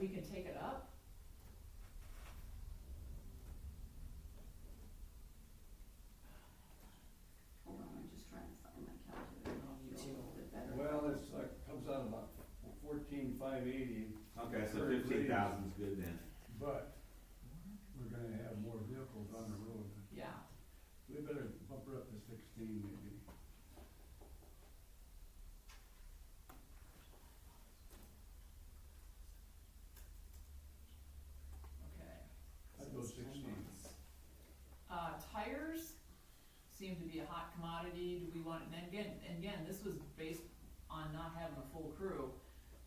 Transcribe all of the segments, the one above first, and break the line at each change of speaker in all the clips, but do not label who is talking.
we can take it up?
Hold on, I'm just trying to find my calculator.
Oh, me
Feel a
too.
little bit better.
Well, it's like, comes out about fourteen five eighty,
Okay, so
For
fifteen thousand's good then.
but we're gonna have more vehicles on the road.
Yeah,
We better bump her up to sixteen maybe.
okay.
I'd go sixteen.
Uh, tires seem to be a hot commodity, do we want, and again, and again, this was based on not having a full crew.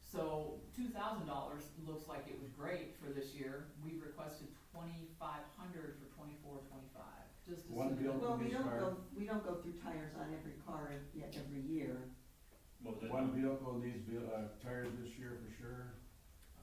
So two thousand dollars looks like it was great for this year, we requested twenty-five hundred for twenty-four, twenty-five, just
One
assuming.
bill.
Well, we
Company's
don't
car.
go, we don't go through tires on every car yet every year.
Well, the,
One vehicle needs to be, uh, tired this year for sure.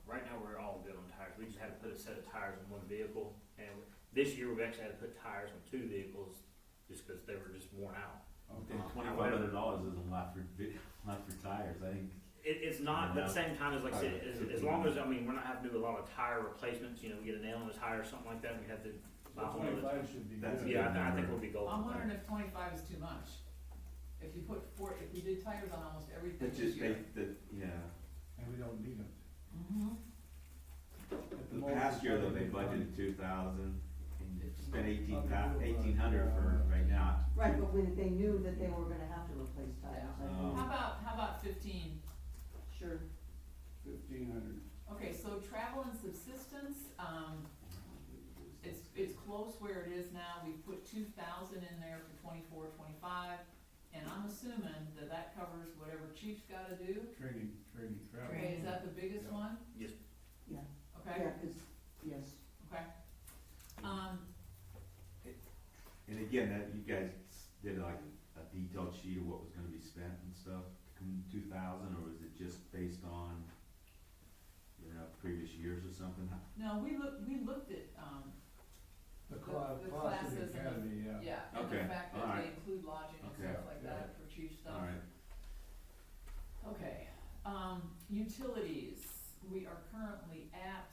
right now, we're all good on tires, we just had to put a set of tires on one vehicle, and this year, we've actually had to put tires on two vehicles, just because they were just worn out.
Okay.
Then Uh, twenty-five hundred dollars isn't a lot for, vi- lot for tires, I think.
It, it's not, but at the same time, as like I said, as, as long as, I mean, we're not having to do a lot of tire replacements, you know, we get a nail in a tire or something like that, we have to buy one of those.
Twenty-five should be
That's
good.
Yeah, I, thi- I think we'll be golden.
I'm wondering if twenty-five is too much. If you put four, if we did tires on almost everything
That
this
just,
year.
they, that, yeah.
And we don't need it.
Mhm.
At
The
moment,
past year though, they
it's probably-
budgeted two thousand and spent eighteen
Unbelievable.
eighteen hundred for right now.
Right, but when they knew that they were gonna have to replace tires, I
Yeah.
How
think.
Um,
about, how about fifteen?
Sure.
Fifteen hundred.
Okay, so travel and subsistence, um, it's, it's close where it is now, we put two thousand in there for twenty-four, twenty-five, and I'm assuming that that covers whatever chief's gotta do.
Training, training, travel.
Okay, is that the biggest
Yeah.
one?
Yes,
Okay,
Yeah, cause, yes.
okay. Um,
And again, that, you guys did like a detailed sheet of what was gonna be spent and stuff, two thousand, or was it just based on, you know, previous years or something?
no, we looked, we looked at, um,
The class,
the
class
classes and
of the
the-
academy, yeah.
yeah, and the
Okay,
fact that they
alright.
include lodging and
Okay,
stuff like
yeah.
that for chief stuff.
Alright,
Okay, um, utilities, we are currently at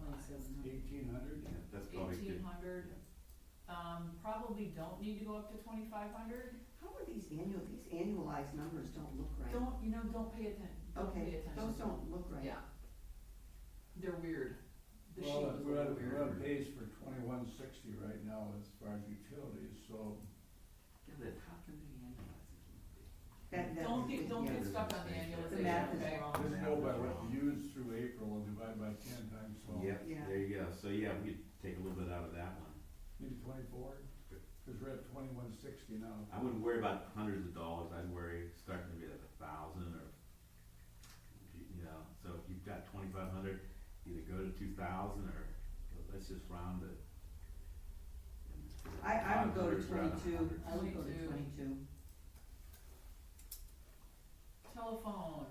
Twenty-seven hundred.
Eighteen hundred?
yeah, that's probably good.
eighteen hundred. Um, probably don't need to go up to twenty-five hundred.
How are these annual, these annualized numbers don't look right.
Don't, you know, don't pay atten- don't pay
Okay,
attention.
those don't look right.
Yeah. They're weird. The sheet
Well,
was a
we're
little
on, we're
weird.
on pace for twenty-one sixty right now as far as utilities, so
God, How can they annualize it? That, that.
Don't get, don't
yeah.
get stuck on the
The
annualization,
math is
okay?
wrong.
just go by what you used through April and divide by ten times twelve.
Yep,
Yeah.
there you go, so yeah, we could take a little bit out of that one.
Maybe twenty-four, cause we're at twenty-one sixty now.
I wouldn't worry about hundreds of dollars, I'd worry starting to be like a thousand or, you know, so if you've got twenty-five hundred, either go to two thousand or let's just round it.
I, I would go to
500 round to
twenty-two,
100.
I would go to
22.
twenty-two.
Telephone.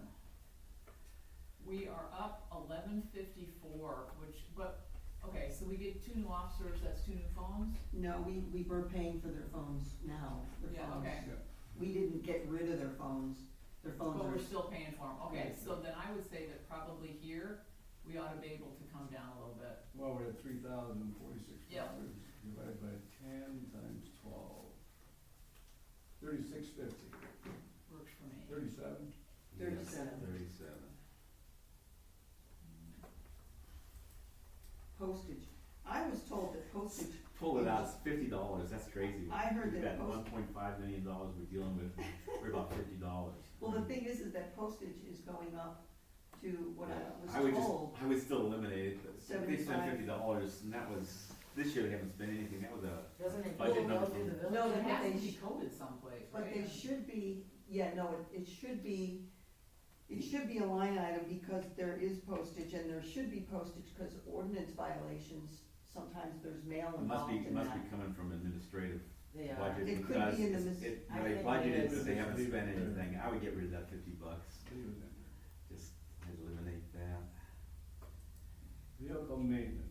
We are up eleven fifty-four, which, but, okay, so we get two new officers, that's two new phones?
No, we, we were paying for their phones now, their
Yeah,
phones.
okay.
We didn't get rid of their phones, their phones
But
are,
we're still paying for them, okay,
Right.
so then I would say that probably here, we ought to be able to come down a little bit.
Well, we're at three thousand and forty-six
Yeah.
dollars, divided by ten times twelve. Thirty-six fifty,
Works for me.
thirty-seven?
Yeah,
37.
Thirty-seven.
postage. I was told that postage,
Pull it out, it's fifty dollars, that's crazy.
I heard
We've
that
got
most-
one point five million dollars we're dealing with, we're about fifty dollars.
well, the thing is, is that postage is going up to what I
would
was
just,
told.
I would still eliminate it, but they spent
75.
fifty dollars, and that was, this year they haven't spent anything, that was a
Doesn't it
Budget
go
number
go through the village?
from-
No,
It
but
has
they
to be
sh-
coded someplace, right?
but they should be, yeah, no, it, it should be, it should be a line item because there is postage and there should be postage because ordinance violations, sometimes there's mail
It must
involved
be,
in that.
it must be coming from administrative
They are.
budget
It could be
because
in the mis-
it,
I
they
think
budgeted,
it
but they
is.
haven't spent anything, I would get rid of that fifty bucks,
Leave it in there.
just eliminate that.
Vehicle maintenance.
Uh,